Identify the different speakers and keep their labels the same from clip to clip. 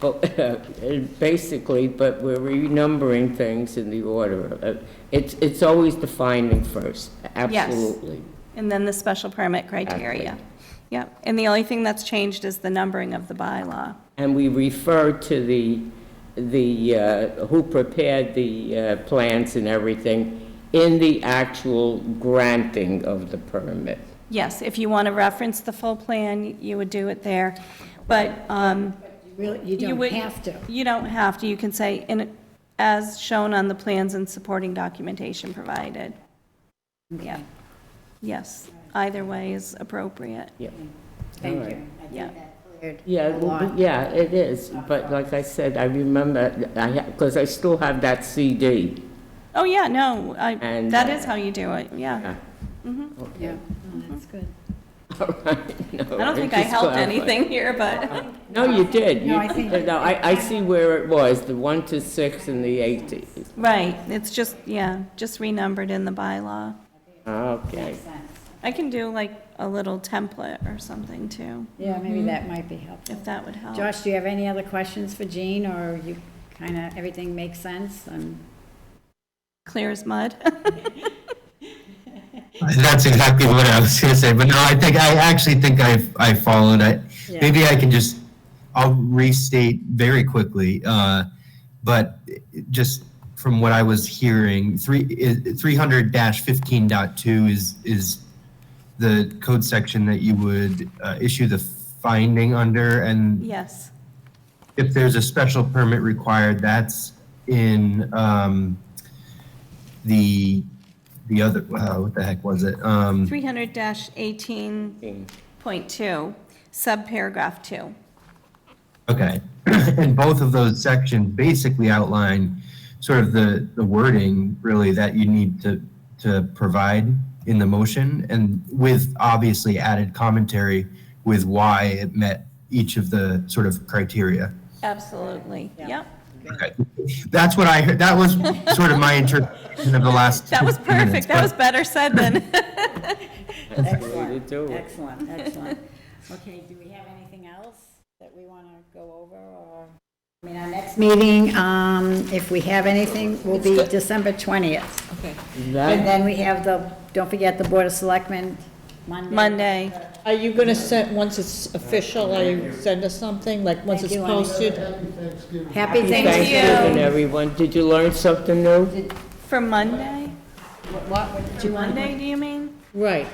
Speaker 1: but, uh, basically, but we're renumbering things in the order. Uh, It's, it's always the finding first, absolutely.
Speaker 2: And then the special permit criteria.
Speaker 1: Exactly.
Speaker 2: Yep, and the only thing that's changed is the numbering of the bylaw.
Speaker 1: And we refer to the, the, uh, who prepared the uh, plans and everything in the actual granting of the permit.
Speaker 2: Yes, if you want to reference the full plan, you would do it there, but um,
Speaker 3: Really, you
Speaker 2: you
Speaker 3: don't
Speaker 2: would...
Speaker 3: have to.
Speaker 2: You don't have to, you can say, "In- as shown on the plans and supporting documentation provided. Yeah, yes, either way is appropriate.
Speaker 1: Yeah,
Speaker 3: Thank
Speaker 1: All right.
Speaker 3: you. I
Speaker 2: Yeah.
Speaker 3: think that cleared
Speaker 1: yeah,
Speaker 3: a
Speaker 1: it will
Speaker 3: lot.
Speaker 1: be- yeah, it is, but like I said, I remember, I, because I still have that CD.
Speaker 2: Oh, yeah, no, I-
Speaker 1: And,
Speaker 2: that
Speaker 1: uh,
Speaker 2: is how you do it, yeah. Mm-hmm.
Speaker 1: Yeah.
Speaker 3: Yeah, no, Oh, that's good.
Speaker 1: All right, no,
Speaker 2: I don't think I
Speaker 1: just
Speaker 2: helped
Speaker 1: clarifying.
Speaker 2: anything here, but,
Speaker 1: No, you did.
Speaker 3: No,
Speaker 1: You-
Speaker 3: I think-
Speaker 1: No, I, I see where it was, the one to six and the eighty.
Speaker 2: right, it's just, yeah, just renumbered in the bylaw.
Speaker 1: Okay.
Speaker 3: Makes sense.
Speaker 2: I can do like a little template or something too,
Speaker 3: Yeah, maybe that might be helpful.
Speaker 2: if that would help.
Speaker 3: Josh, do you have any other questions for Jean, or you kind of, everything makes sense? Um,
Speaker 2: Clear as mud.
Speaker 4: That's exactly what I was gonna say, but no, I think, I actually think I've, I followed it.
Speaker 3: Yeah.
Speaker 4: Maybe I can just, I'll restate very quickly, uh, but just from what I was hearing, three, three hundred dash fifteen dot two is, is the code section that you would, uh, issue the finding under, and
Speaker 2: Yes,
Speaker 4: if there's a special permit required, that's in, um, the, the other, uh, what the heck was it? Um,
Speaker 2: 300-18.2, subparagraph 2.
Speaker 4: Okay, and both of those sections basically outline sort of the, the wording really that you need to, to provide in the motion and with obviously added commentary with why it met each of the sort of criteria.
Speaker 2: Absolutely, yep.
Speaker 4: Okay. That's what I heard, that was sort of my interpretation of the last.
Speaker 2: That was
Speaker 4: two minutes,
Speaker 2: perfect, that
Speaker 4: but-
Speaker 2: was better said than,
Speaker 1: That's the way to do it.
Speaker 3: Excellent, excellent. Okay, do we have anything else that we want to go over, or? I mean, our next meeting, um, if we have anything, will be December 20th. Okay. And
Speaker 1: That,
Speaker 3: then we have the, don't forget the Board of Selectmen Monday.
Speaker 2: Monday.
Speaker 5: Are you going to send, once it's official, are you send us something, like, once
Speaker 3: Thank
Speaker 5: it's
Speaker 3: you, Andy.
Speaker 5: posted?
Speaker 3: Happy
Speaker 2: Thank you.
Speaker 3: Thanksgiving.
Speaker 1: Thanksgiving, everyone. Did you learn something new?
Speaker 2: For Monday?
Speaker 3: What, what did you want?
Speaker 2: Monday, do you mean?
Speaker 5: Right.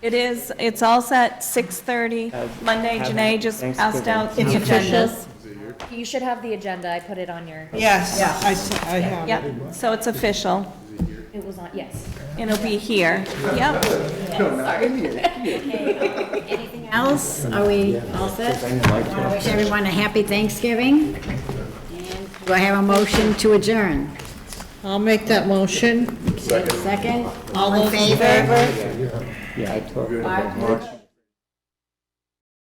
Speaker 2: It is, it's all set, 6:30.
Speaker 1: Have-
Speaker 2: Monday,
Speaker 1: have
Speaker 2: Janae just asked
Speaker 1: Thanksgiving.
Speaker 2: out the
Speaker 5: It's official?
Speaker 2: agendas.
Speaker 6: You should have the agenda, I put it on your,
Speaker 5: Yes, I, s- I have.
Speaker 2: Yep, so it's official.
Speaker 6: it was on, yes.
Speaker 2: It'll be here, yep.
Speaker 3: Anything else? Are we all set? I wish everyone a happy Thanksgiving. And do I have a motion to adjourn?
Speaker 5: I'll make that motion.
Speaker 3: Second? All in favor?
Speaker 1: Yeah, I talked.
Speaker 3: Five.